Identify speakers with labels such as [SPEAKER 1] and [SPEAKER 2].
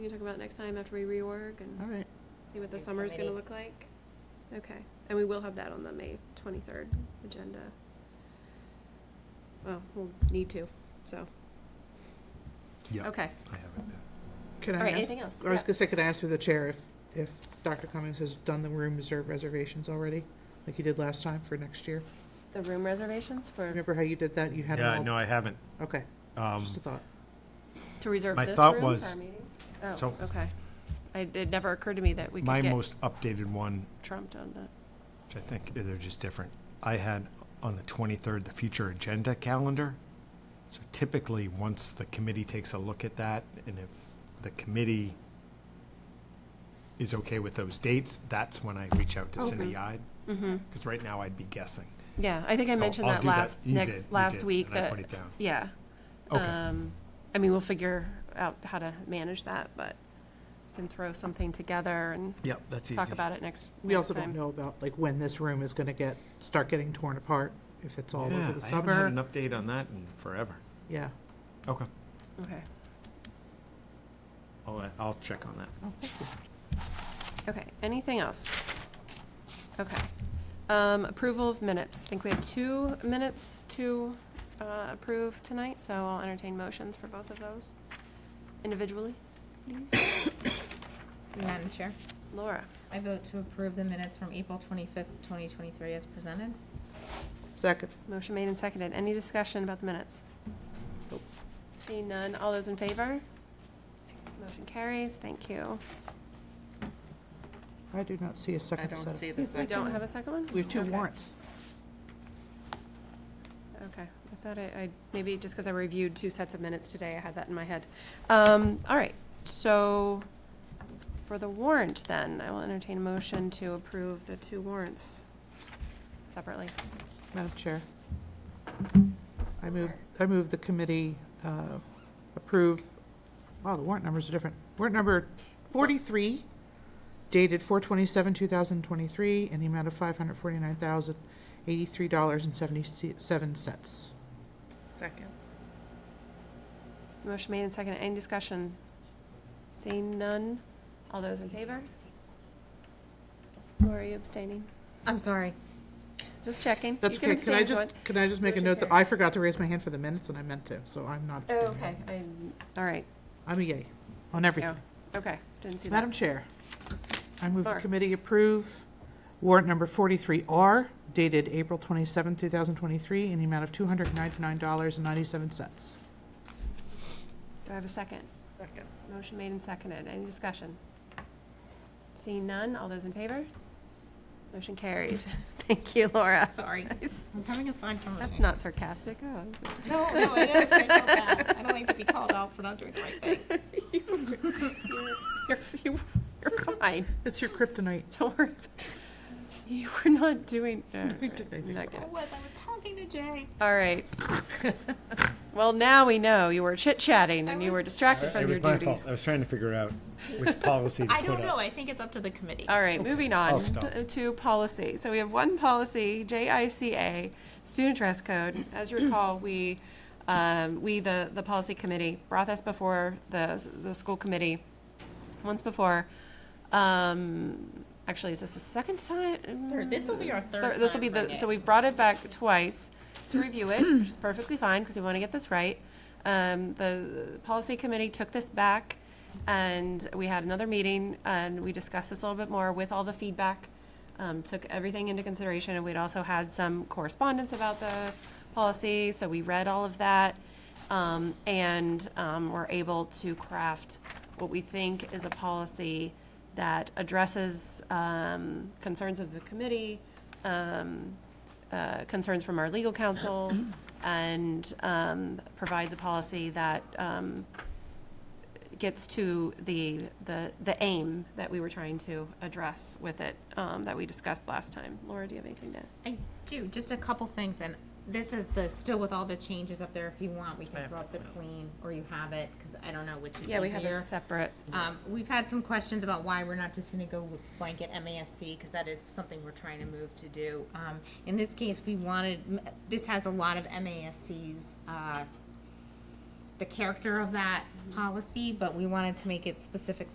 [SPEAKER 1] we can talk about next time after we reorg
[SPEAKER 2] All
[SPEAKER 1] and
[SPEAKER 2] right.
[SPEAKER 1] see what the
[SPEAKER 3] Big
[SPEAKER 1] summer's gonna
[SPEAKER 3] committee.
[SPEAKER 1] look like. Okay, and we will have that on the May twenty-third agenda. Well, we'll need to, so,
[SPEAKER 4] Yeah,
[SPEAKER 1] okay.
[SPEAKER 4] I have it.
[SPEAKER 2] Could
[SPEAKER 1] All
[SPEAKER 2] I
[SPEAKER 1] right,
[SPEAKER 2] ask,
[SPEAKER 1] anything else?
[SPEAKER 2] I
[SPEAKER 1] Yeah.
[SPEAKER 2] was gonna say, could I ask through the chair if, if Dr. Cummings has done the room reserve reservations already? Like you did last time for next year?
[SPEAKER 3] The room reservations for,
[SPEAKER 2] Remember how you did that? You had
[SPEAKER 4] Yeah,
[SPEAKER 2] them
[SPEAKER 4] no,
[SPEAKER 2] all?
[SPEAKER 4] I haven't.
[SPEAKER 2] Okay,
[SPEAKER 4] Um,
[SPEAKER 2] just a thought.
[SPEAKER 1] To reserve
[SPEAKER 4] My
[SPEAKER 1] this
[SPEAKER 4] thought
[SPEAKER 1] room for
[SPEAKER 4] was-
[SPEAKER 1] our meetings? Oh,
[SPEAKER 4] so-
[SPEAKER 1] okay. I, it never occurred to me that we
[SPEAKER 4] My
[SPEAKER 1] could get
[SPEAKER 4] most updated one,
[SPEAKER 1] trumped on that.
[SPEAKER 4] which I think they're just different, I had on the 23rd, the future agenda calendar. So typically, once the committee takes a look at that, and if the committee is okay with those dates, that's when I reach out to Cindy Ide,
[SPEAKER 1] Mm-hmm,
[SPEAKER 4] because right now I'd be guessing.
[SPEAKER 1] yeah, I think I
[SPEAKER 4] So
[SPEAKER 1] mentioned
[SPEAKER 4] I'll
[SPEAKER 1] that
[SPEAKER 4] do that.
[SPEAKER 1] last,
[SPEAKER 4] You did, you
[SPEAKER 1] next, last
[SPEAKER 4] did,
[SPEAKER 1] week
[SPEAKER 4] and I
[SPEAKER 1] that,
[SPEAKER 4] put it down.
[SPEAKER 1] yeah.
[SPEAKER 4] Okay.
[SPEAKER 1] Um, I mean, we'll figure out how to manage that, but can throw something together and
[SPEAKER 4] Yep, that's easy.
[SPEAKER 1] talk about it next,
[SPEAKER 2] We
[SPEAKER 1] next
[SPEAKER 2] also don't
[SPEAKER 1] time.
[SPEAKER 2] know about, like, when this room is gonna get, start getting torn apart, if it's all
[SPEAKER 4] Yeah,
[SPEAKER 2] over the
[SPEAKER 4] I haven't had
[SPEAKER 2] summer.
[SPEAKER 4] an update on that in forever.
[SPEAKER 2] Yeah.
[SPEAKER 4] Okay.
[SPEAKER 1] Okay,
[SPEAKER 4] I'll, I'll check on that.
[SPEAKER 2] Oh, thank you.
[SPEAKER 1] okay, anything else? Okay, um, approval of minutes, I think we have two minutes to, uh, approve tonight, so I'll entertain motions for both of those individually, please.
[SPEAKER 3] Madam Chair,
[SPEAKER 1] Laura,
[SPEAKER 3] I vote to approve the minutes from April twenty-fifth, twenty twenty-three as presented.
[SPEAKER 2] Second.
[SPEAKER 1] motion made and seconded, any discussion about the minutes?
[SPEAKER 2] Nope.
[SPEAKER 1] Seeing none, all those in favor? Motion carries, thank you.
[SPEAKER 2] I do not see a second set. of-
[SPEAKER 3] the
[SPEAKER 1] We don't have a second one?
[SPEAKER 2] We have two
[SPEAKER 1] Okay.
[SPEAKER 2] warrants.
[SPEAKER 1] Okay, I thought I, I, maybe just because I reviewed two sets of minutes today, I had that in my head. Um, all right, so for the warrant then, I will entertain a motion to approve the two warrants separately.
[SPEAKER 2] Madam Chair. I move, I move the committee uh, approve, wow, the warrant numbers are different. Warrant number 43 dated 4/27/2023 in the amount of $549,083.77.
[SPEAKER 3] Second.
[SPEAKER 1] Motion made and seconded, any discussion? Seeing none, all those in favor? Or are you abstaining?
[SPEAKER 3] I'm sorry.
[SPEAKER 1] Just checking. You
[SPEAKER 2] That's
[SPEAKER 1] can
[SPEAKER 2] okay. Can I
[SPEAKER 1] abstain if you
[SPEAKER 2] just,
[SPEAKER 1] want.
[SPEAKER 2] can I just make a
[SPEAKER 1] Motion
[SPEAKER 2] note that I
[SPEAKER 1] carries.
[SPEAKER 2] forgot to raise my hand for the minutes and I meant to, so I'm not
[SPEAKER 1] Oh,
[SPEAKER 2] abstaining.
[SPEAKER 1] okay, Oh. I, all right,
[SPEAKER 2] I'm a yay on everything.
[SPEAKER 1] yeah, okay, didn't see that.
[SPEAKER 2] Madam Chair, I move the
[SPEAKER 1] Sir.
[SPEAKER 2] committee approve warrant number 43R dated April 27, 2023, in the amount of $299.97.
[SPEAKER 1] Do I have a second?
[SPEAKER 2] Second.
[SPEAKER 1] Motion made and seconded. Any discussion? Seeing none, all those in favor? Motion carries. Thank you, Laura.
[SPEAKER 3] Sorry. I was having a side conversation.
[SPEAKER 1] That's not sarcastic. Oh, this is-
[SPEAKER 3] No, no, I don't, I felt bad. I don't like to be called out for not doing the right thing.
[SPEAKER 1] you're, you- you're fine.
[SPEAKER 2] It's your kryptonite.
[SPEAKER 1] Don't worry. You were not doing, uh,
[SPEAKER 2] I did, I did.
[SPEAKER 1] not
[SPEAKER 3] I
[SPEAKER 1] good.
[SPEAKER 3] was, I was talking to Jay.
[SPEAKER 1] All right. Well, now we know you were chit-chatting and
[SPEAKER 3] I
[SPEAKER 1] you were
[SPEAKER 3] was-
[SPEAKER 1] distracted from your duties.
[SPEAKER 4] trying to figure out which policy
[SPEAKER 3] I don't know, I think it's up to the committee.
[SPEAKER 1] All right, moving on
[SPEAKER 4] I'll stop.
[SPEAKER 1] to policy. So we have one policy, JICA, student dress code. As you recall, we, um, we, the, the policy committee, brought this before the, the school committee once before. Um, actually, is this the second time?
[SPEAKER 3] Third. This will be our third
[SPEAKER 1] Thir- This will
[SPEAKER 3] time
[SPEAKER 1] be the,
[SPEAKER 3] bringing
[SPEAKER 1] so
[SPEAKER 3] it.
[SPEAKER 1] we've brought it back twice to review it, which is perfectly fine, because we want to get this right. Um, the policy committee took this back, and we had another meeting, and we discussed this a little bit more with all the feedback. Um, took everything into consideration, and we'd also had some correspondence about the policy, so we read all of that. Um, and, um, we're able to craft what we think is a policy that addresses, um, concerns of the committee, um, uh, concerns from our legal counsel, and, um, provides a policy that, um, gets to the, the, the aim that we were trying to address with it, um, that we discussed last time. Laura, do you have anything to?
[SPEAKER 3] I do, just a couple things, and this is the, still with all the changes up there, if you want, we can throw up the queen, or you have it, because I don't know which is easier.
[SPEAKER 1] Yeah, we have a separate.
[SPEAKER 3] Um, we've had some questions about why we're not just gonna go with blanket MASC, because that is something we're trying to move to do. Um, in this case, we wanted, m- this has a lot of MASC's, uh, the character of that policy, but we wanted to make it specific